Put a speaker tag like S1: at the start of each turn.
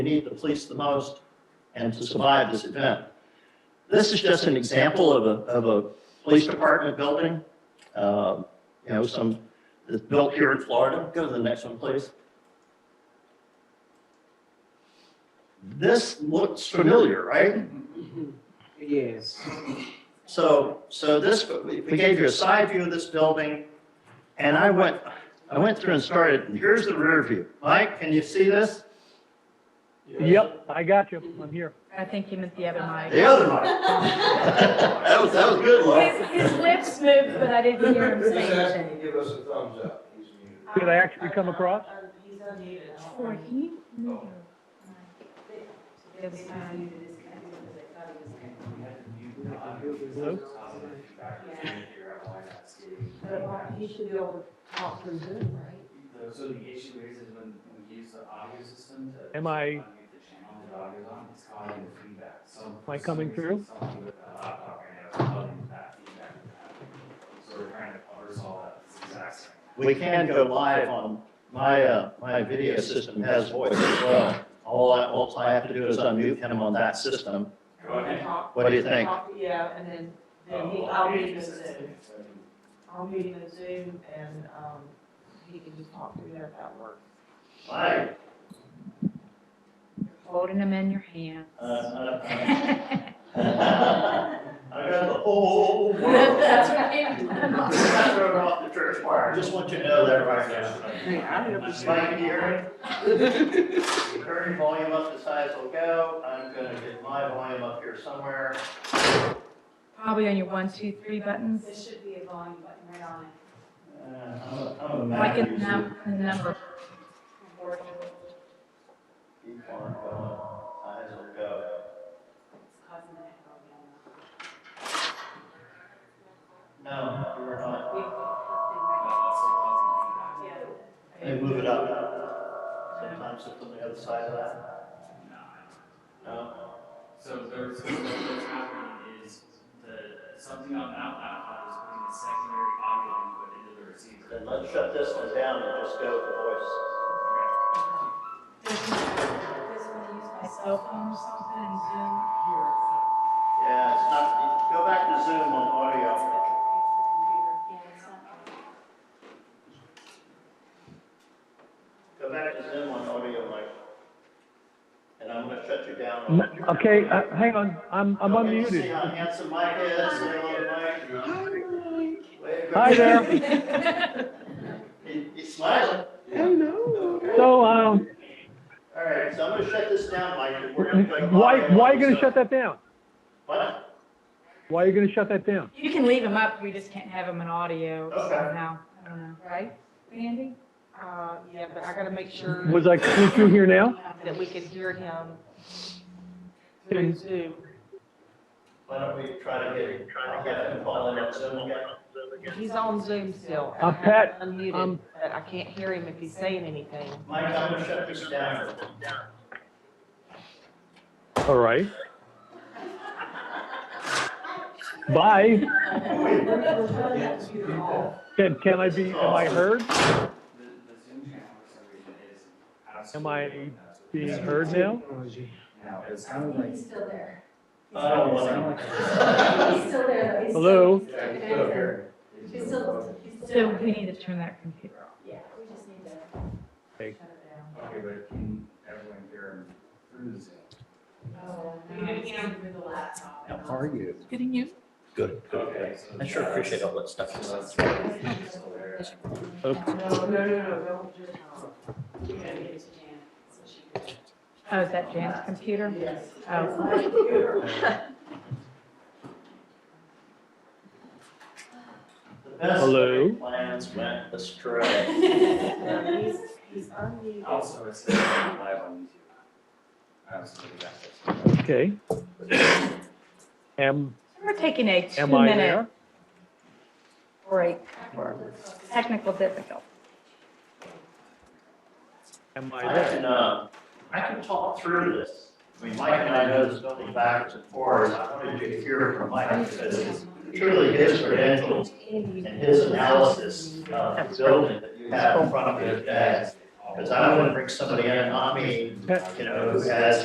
S1: we need the police the most and to survive this event. This is just an example of a, of a police department building, um, you know, some, that's built here in Florida. Go to the next one, please. This looks familiar, right?
S2: Yes.
S1: So, so this, we we gave you a side view of this building, and I went, I went through and started, and here's the rear view. Mike, can you see this?
S3: Yep, I got you. I'm here.
S4: I think he meant the other mic.
S1: The other Mike. That was, that was good, Mike.
S4: His, his lips moved, but I didn't hear him
S5: Just
S4: say
S5: ask
S4: anything.
S5: him to give us a thumbs up. He's muted.
S3: Did I actually come across?
S6: He's unmuted.
S4: Or he knew.
S6: It was kind of disconnected because I thought he was
S7: Uh,
S6: connected.
S3: Hello?
S6: But he should be able to talk through Zoom, right?
S7: So the issue is, is when we use the audio system to.
S3: Am I-
S7: unmute The channel that audio's on, it's causing the feedback, so. Am
S3: I coming through?
S7: Something with the laptop right now is causing that feedback to happen. So we're trying to resolve that, it's exact same.
S1: We can go live on, my, uh, my video system has voice as well. All I, all I have to do is unmute him on that system.
S7: Go ahead.
S6: Talk-
S1: What do you think?
S6: talk- Yeah, and then, then he,
S7: Oh,
S6: I'll
S7: okay.
S6: meet him in Zoom. I'll meet him in Zoom and, um, he can just talk through there if that works.
S1: Mike,
S4: Holding him in your hand.
S1: uh, uh, uh, I got the whole world.
S4: That's right.
S1: I throw it off the church wire. I just want you to know that right now.
S2: Hey, I have a
S1: Mike, can you hear me? Turn your volume up as high as will go. I'm gonna get my volume up here somewhere.
S4: Probably on your one, two, three buttons,
S6: There should be a volume button right on it.
S1: Uh, I'm a, I'm a
S4: like
S1: Mac
S4: in
S1: user.
S4: num- the number.
S1: Keep on going. High as will go.
S6: It's causing that problem.
S1: No, you are not.
S6: We- we-
S7: That's still causing feedback.
S1: They move it up. Sometimes it's on the other side of that. No.
S7: So there's, so what's happening is the, something on that laptop is putting a secondary audio input into the receiver.
S1: Then let's shut this one down and just go with the voice.
S7: Okay.
S4: Does he- does he use my cell phone or something in Zoom?
S1: Yeah, it's not, go back to Zoom on audio.
S6: Yeah, it's not.
S1: Go back to Zoom on audio, Mike. And I'm gonna shut you down. on-
S3: N- Okay, uh, hang on. I'm, I'm
S1: Okay, See
S3: unmuted.
S1: how handsome Mike is? Say hello to Mike. Wave at
S3: Hi there.
S1: He- He's smiling.
S3: So, um,
S1: All right, so I'm gonna shut this down, Mike, and we're gonna. play
S3: why,
S1: audio
S3: why are you
S1: on
S3: gonna shut that down?
S1: What?
S3: Why are you gonna shut that down?
S4: You can leave him up, we just can't have him in audio
S1: Okay.
S4: somehow. I don't know, right, Andy?
S6: Uh, yeah, but I gotta make sure
S3: Was I coming through here now?
S6: that we could hear him through Zoom.
S1: Why don't we try to get, try to get him calling on Zoom again?
S6: He's on Zoom still.
S3: Uh, Pat,
S6: I'm Unmuted,
S3: um,
S6: but I can't hear him if he's saying anything.
S1: Mike, I'm gonna shut this down.
S3: All right. Bye. Can, can I be, am I heard?
S7: The, the Zoom channel for some reason is
S3: Am I
S7: absolutely. nuts with
S3: Being
S7: this.
S3: heard now?
S7: Now, it's kind of like.
S8: He's still there.
S1: I don't
S7: it's
S1: want
S7: kind
S1: to.
S7: of like-
S8: He's still there. though. He's still-
S3: Hello?
S8: he's still connected. He's still, he's still.
S4: So we need to turn that computer off.
S8: Yeah, we just need to.
S7: Okay, but can everyone hear him through the Zoom?
S8: Oh,
S1: How
S6: are you?
S4: Getting you?
S1: Good,
S7: Okay, so. uh,
S1: I sure appreciate all that stuff.
S7: So that's why it's still there.
S6: No, no, no, no, don't just. You gotta get to Jan, so she can.
S4: Oh, is that Jan's computer?
S6: Yes.
S4: Oh,
S1: The best
S3: Hello?
S1: Plans went astray.
S6: No, he's, he's unmuted.
S7: Also, it's uh, live on YouTube. Absolutely, that's it.
S3: Okay. Am,
S4: we're taking a two
S3: am I
S4: minute
S3: there?
S4: break for technical difficulty.
S3: Am I
S1: I
S3: there?
S1: can, uh, I can talk through this. I mean, Mike and I know this building backwards and forwards. I wanted you to hear from Mike because it's truly his credentials and his analysis of the building that you have in front of you today. Because I don't want to bring somebody in on me, you know, who has